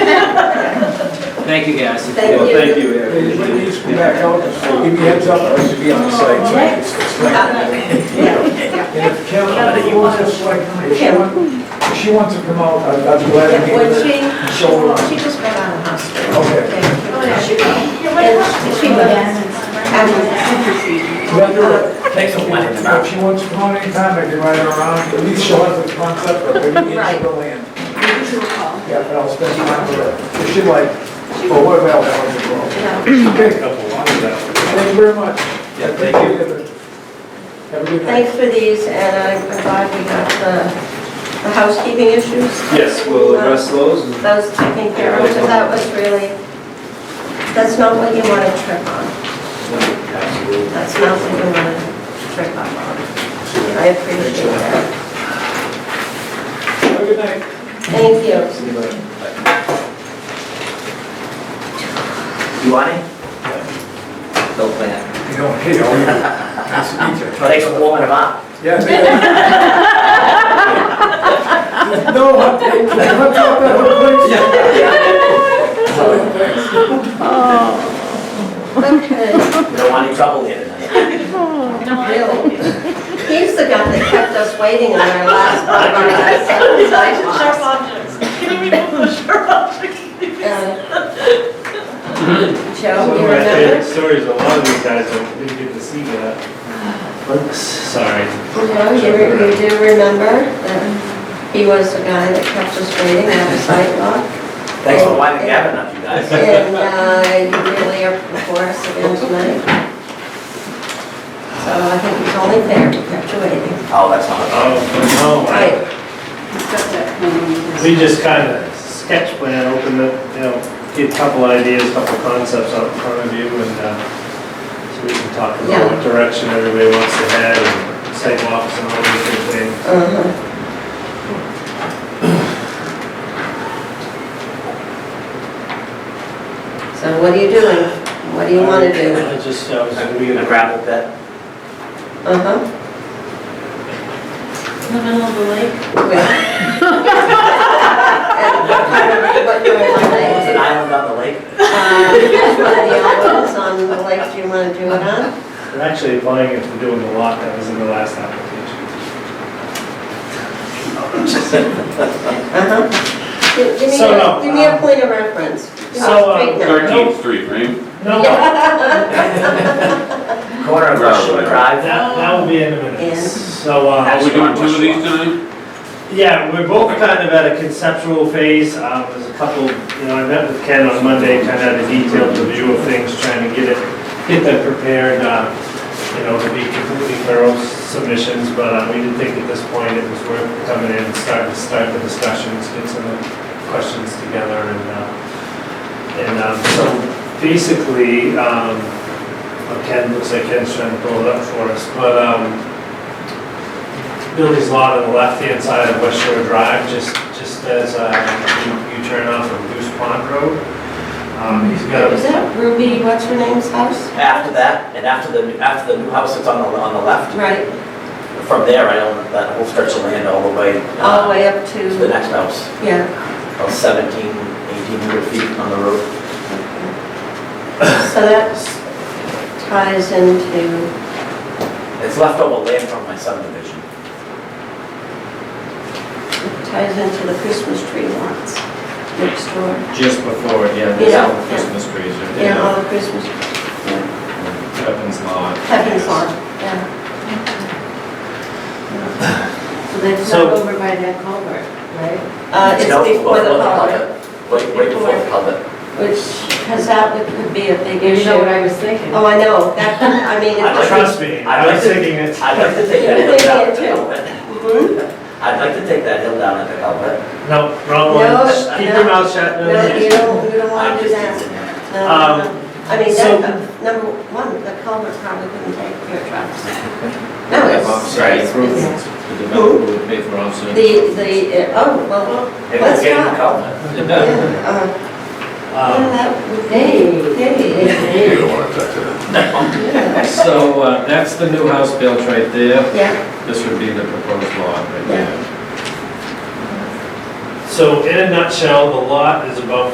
Thank you, guys. Thank Well, you. thank you, Hey, when everybody. these come back out, give me heads up, I should be on the site, so I can explain. And if Kim, just like, if she wants, if she wants to come out, I- I'm glad to Yeah, meet When her. she, she, well, she just got out of hospital. Okay, And she, and she was, I let her, if she wants to come out anytime, I can ride her around, at least show us the concept of where you need to go in. Yeah, and I'll spend time with her, if she like, or whatever else I want to go. Okay, thank you very much. Yeah, thank you. Have a good night. Thanks for these, and I'm glad we got the, the housekeeping issues. Yes, we'll address those. and- Those taken care of, so that was really, that's not what you want to trip on. Absolutely. That's not what you want to trip up on. I appreciate that. Have a good night. Thank you. You want it? No plan. You know, hey, how are you? Nice to meet you. Thanks for warming them up. Yeah. thank you. No, I, I thought that was like, Okay. You don't want any trouble here tonight. Bill, he's the guy that kept us waiting on our last one of our last sidewalks. objects. Can you remove the sharp objects? Um, Uh, Joe, One you of my favorite remember? stories, a lot of you guys don't really get to see that. Sorry. Joe, you re- you do remember that he was the guy that kept us waiting on the sidewalk? Thanks for winding Gavin up, you guys. And uh, you really are before us again tonight. So I think it's only fair we kept you waiting. Oh, that's not. Oh, no, I- Right, we just kind of sketch plan, open the, you know, get a couple ideas, a couple concepts out in front of you and, uh, so we can talk Yeah. about what direction everybody wants to head and sidewalks and all these good things. uh-huh. So what are you doing? What do you want to do? I just, I was, we uh, We're gonna gravel pit. Uh-huh. In the middle of the lake. It's an Well. island on the lake. Which one of the islands on the lake do you want to do it on? we're actually applying it for doing the lot that was in the last application. Uh-huh. Give give me, So, a- no, give me a um, point of reference. Give me a so, uh, straight number. 13th Street, right? No, no, Yeah. Corner of Gravel Russian pit. Drive. that, that will be in a And- minute. So, uh. Are we doing two of these tonight? Yeah, we're both kind of at a conceptual phase. Um, There's a couple, you know, I met with Ken on Monday, kind of had a detailed review of things, trying to get it, get them prepared, uh, you know, to be completely thorough submissions, but uh, we didn't think at this point it was worth coming in and starting, start the discussions, get some of the questions together and, uh, and um, so basically, um, well, Ken, looks like Ken's trying to pull it up for us, but um, Billy's lot on the left-hand side of West Shore Drive, just, just as uh, you you turn off of Goose Pond Road. Um, He's got, Is that Ruby, what's her name's house? After that, and after the, after the new house that's on the, on the left, Right, from there, I own that whole stretch of land all the way. uh, all the way up To the to, next house, yeah. about 17, 1800 feet on the road. So that ties into, It's leftover land from my subdivision. ties into the Christmas tree lots next door. Just before, yeah, Yeah, there's all yeah. the Christmas trees right there. Yeah, all the Christmas, yeah, Pepin's Lawn. Pepin's Lawn, yeah. So that's So- not over by that culvert, right? Uh, it's No, before the holiday, Wait, wait before the public. which, because that would- could be a big You know what issue. I was thinking? Oh, I know, that, I mean, I it's, like- trust me, I was thinking it. I'd like to take that Yeah, hill they down did at the too. culvert. Mhm. I'd like to take that hill down at the culvert. No, wrong No, one. Keep no, your mouth shut. no. no, you don't, you don't I'm want to do just that. teasing you. No, Um, no, no. I mean, so- that, uh, number one, the culvert probably couldn't take your trucks. No, Have it's, offsite it's, improvements. it's- The developer would pay for offsite. the, the, uh, oh, well, Maybe Let's we'll get not. the culvert. It yeah, does. uh, yeah, Um, that would Hey, be, hey, hey, hey. yeah, So uh, that's the new house built right there. yeah, This would be the proposed lot right there. So in a nutshell, the lot is about